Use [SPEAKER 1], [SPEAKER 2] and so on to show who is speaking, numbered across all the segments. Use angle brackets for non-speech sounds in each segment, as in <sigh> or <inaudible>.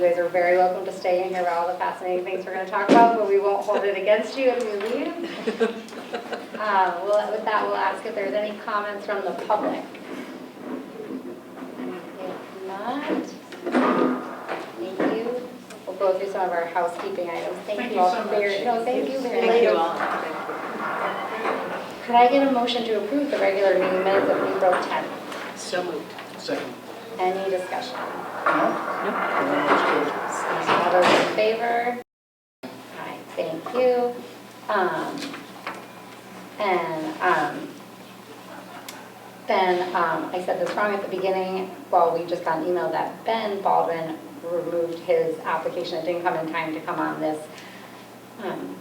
[SPEAKER 1] guys are very welcome to stay in here about all the fascinating things we're gonna talk about, but we won't hold it against you if you leave.
[SPEAKER 2] <laughs>
[SPEAKER 1] Uh, well, with that, we'll ask if there's any comments from the public. If not, thank you. We'll go through some of our housekeeping items. Thank you all for your, no, thank you very much.
[SPEAKER 2] Thank you all.
[SPEAKER 1] Could I get a motion to approve the regular meeting minutes of April 10th?
[SPEAKER 2] So moved.
[SPEAKER 3] Second.
[SPEAKER 1] Any discussion?
[SPEAKER 3] No? Everyone was
[SPEAKER 1] All those in favor? All right, thank you. Um, And um, then, um, I said this wrong at the beginning, well, we just got an email that Ben Baldwin removed his application, it didn't come in time to come on this um,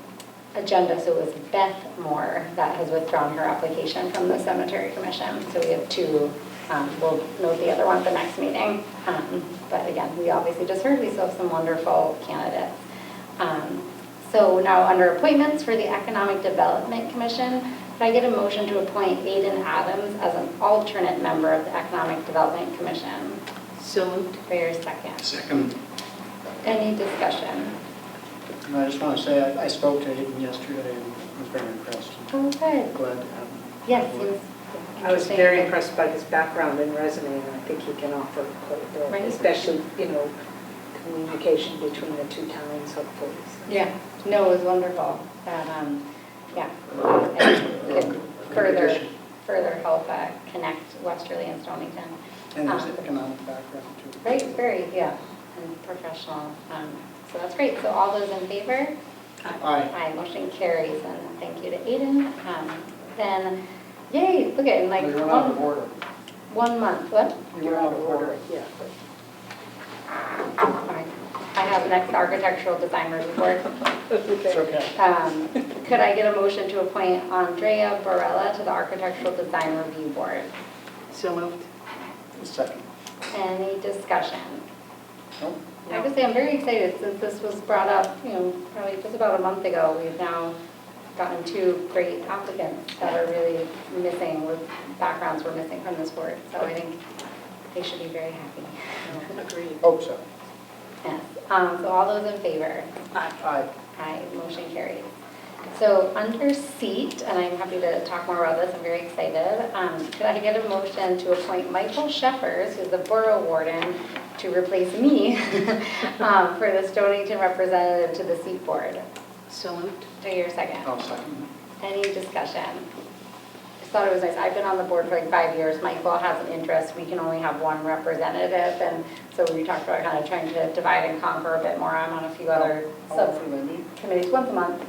[SPEAKER 1] agenda, so it was Beth Moore that has withdrawn her application from the cemetery commission. So we have two, um, we'll note the other one at the next meeting. Um, But again, we obviously just heard, we still have some wonderful candidates. Um, So now, under appointments for the Economic Development Commission, could I get a motion to appoint Aiden Adams as an alternate member of the Economic Development Commission?
[SPEAKER 2] So moved.
[SPEAKER 1] For your second.
[SPEAKER 3] Second.
[SPEAKER 1] Any discussion?
[SPEAKER 3] And I just want to say, I- I spoke to him yesterday and was very impressed. and
[SPEAKER 1] Oh, good.
[SPEAKER 3] Glad to have him.
[SPEAKER 1] Yes, he was.
[SPEAKER 4] I was
[SPEAKER 1] interesting.
[SPEAKER 4] very impressed by his background and resume, and I think he can offer quite a
[SPEAKER 1] Right.
[SPEAKER 4] bit, especially, you know, communication between the two towns, hopefully. so.
[SPEAKER 1] Yeah, no, it was wonderful. That, um, yeah, and could further, further help uh, connect Westerly and Stonington.
[SPEAKER 3] And his
[SPEAKER 1] Um,
[SPEAKER 3] economic background too.
[SPEAKER 1] Right, very, yeah, and professional. Um, So that's great. So all those in favor?
[SPEAKER 3] Aye.
[SPEAKER 1] Aye, motion carries, and thank you to Aiden. Um, Then, yay, look at, in like, um,
[SPEAKER 3] We went out of
[SPEAKER 1] one,
[SPEAKER 3] order.
[SPEAKER 1] one month, what?
[SPEAKER 3] We went out of order.
[SPEAKER 4] Yeah.
[SPEAKER 1] Fine. I have next architectural design report.
[SPEAKER 3] It's okay.
[SPEAKER 1] Um, Could I get a motion to appoint Andrea Barella to the Architectural Design Review Board?
[SPEAKER 2] So moved.
[SPEAKER 3] Second.
[SPEAKER 1] Any discussion?
[SPEAKER 3] No?
[SPEAKER 1] I would say I'm very excited since this was brought up, you know, probably just about a month ago. We've now gotten two great applicants that are really missing, with backgrounds were missing from this board. So I think they should be very happy. <laughs>
[SPEAKER 2] Agreed.
[SPEAKER 3] Hope so.
[SPEAKER 1] Yes. Um, So all those in favor?
[SPEAKER 2] Aye.
[SPEAKER 3] Aye.
[SPEAKER 1] Aye, motion carries. So under seat, and I'm happy to talk more about this, I'm very excited, um, could I get a motion to appoint Michael Sheffers, who's the Borough Warden, to replace me <laughs> um, for the Stonington representative to the seat board?
[SPEAKER 2] So moved.
[SPEAKER 1] Do your second.
[SPEAKER 3] I'll second.
[SPEAKER 1] Any discussion? Just thought it was nice, I've been on the board for like five years, Michael has an interest, we can only have one representative, and so we talked about kind of trying to divide and conquer a bit more, I'm on a few other
[SPEAKER 3] How
[SPEAKER 1] sub
[SPEAKER 3] often they meet?
[SPEAKER 1] committees once a month.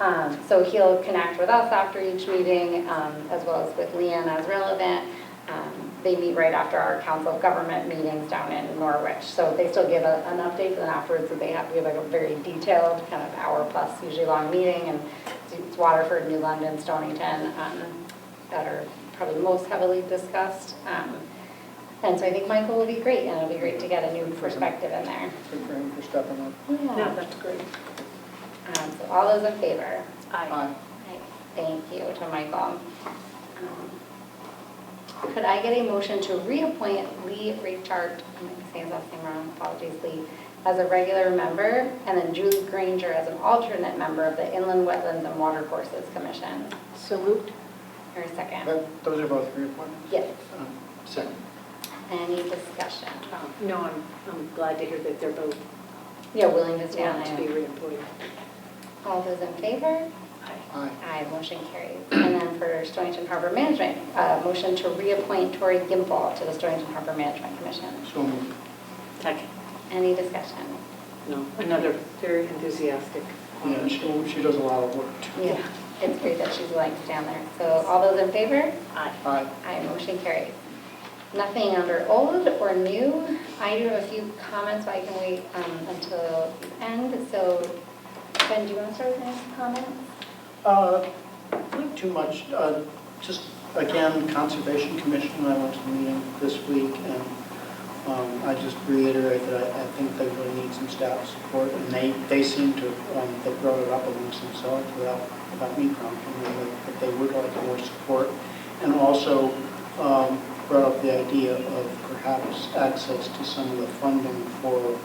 [SPEAKER 1] Um, So he'll connect with us after each meeting, um, as well as with Leanne as relevant. Um, They meet right after our council of government meetings down in Norwich. So they still give a- an update, and then afterwards, they have, we have like a very detailed, kind of hour-plus, usually long meeting, and it's Waterford, New London, Stonington um, that are probably most heavily discussed. Um, And so I think Michael will be great, and it'll be great to get a new perspective in there.
[SPEAKER 3] Good for him for stepping up.
[SPEAKER 1] Yeah.
[SPEAKER 2] No, that's great.
[SPEAKER 1] Um, So all those in favor?
[SPEAKER 2] Aye.
[SPEAKER 3] Aye.
[SPEAKER 1] Right, Thank you to Michael. Um, Could I get a motion to reappoint Lee Richard, I'm saying that name wrong, apologies, Lee, as a regular member, and then Julie Granger as an alternate member of the Inland Wetlands and Watercourses Commission?
[SPEAKER 2] So moved.
[SPEAKER 1] Or a second?
[SPEAKER 3] That- Those are both reappointments?
[SPEAKER 1] Yes.
[SPEAKER 3] Um, Second.
[SPEAKER 1] Any discussion?
[SPEAKER 2] Um, No, I'm, I'm glad to hear that they're both
[SPEAKER 1] Yeah, willing to stay on
[SPEAKER 2] want to be
[SPEAKER 1] it.
[SPEAKER 2] reappointed.
[SPEAKER 1] All those in favor?
[SPEAKER 2] Aye.
[SPEAKER 3] Aye.
[SPEAKER 1] Aye, motion carries. And then for Stonington Harbor Management, uh, motion to reappoint Tori Gimble to the Stonington Harbor Management Commission.
[SPEAKER 3] So moved.
[SPEAKER 2] Second.
[SPEAKER 1] Any discussion?
[SPEAKER 2] No, another very enthusiastic.
[SPEAKER 3] Yeah, she, she does a lot of work. too.
[SPEAKER 1] Yeah, it's great that she's willing to stay on there. So all those in favor?
[SPEAKER 2] Aye.
[SPEAKER 3] Aye.
[SPEAKER 1] Aye, motion carries. Nothing under old or new. I do have a few comments, but I can wait um, until the end. So Ben, do you want to start with any comments?
[SPEAKER 3] Uh, Not too much, Uh, just again, Conservation Commission, I went to the meeting this week, and um, I just reiterate that I I think they really need some staff support, and they, they seem to, um, they brought it up amongst themselves without, without me prompting them, that- that they would like more support, and also um, brought up the idea of perhaps access to some of the funding for